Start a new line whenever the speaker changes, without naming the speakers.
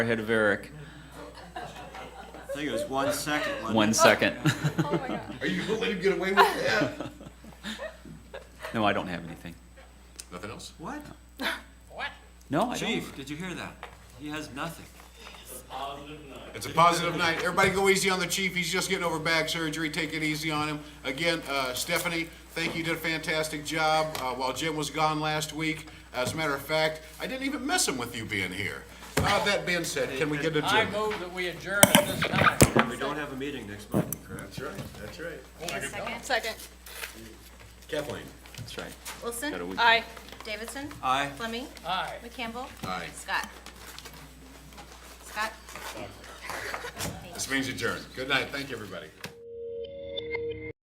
ahead of Eric.
I think it was one second. wasn't
One
it?
second.
Oh my God.
Are you gonna let him get away with that?
No, I don't have anything.
Nothing else?
What?
No, I don't.
Chief, did you hear that? He has nothing.
It's a positive night. Everybody go easy on the chief. He's just getting over back surgery. Take it easy on him. Again, uh, Stephanie, thank you. You Did a fantastic job uh, while Jim was gone last week. As a matter of fact, I didn't even miss him with you being here. Uh, that being said, can we get to
I
Jim?
move that we adjourn at this time.
We don't have a meeting next month, correct?
That's right, that's right.
Second.
Kathleen?
That's right.
Wilson.
Got a week.
Aye.
Davidson.
Aye.
Fleming.
Aye.
McCampbell.
Aye.
Scott. Scott.
This means adjourned. Good night. Thank you, everybody.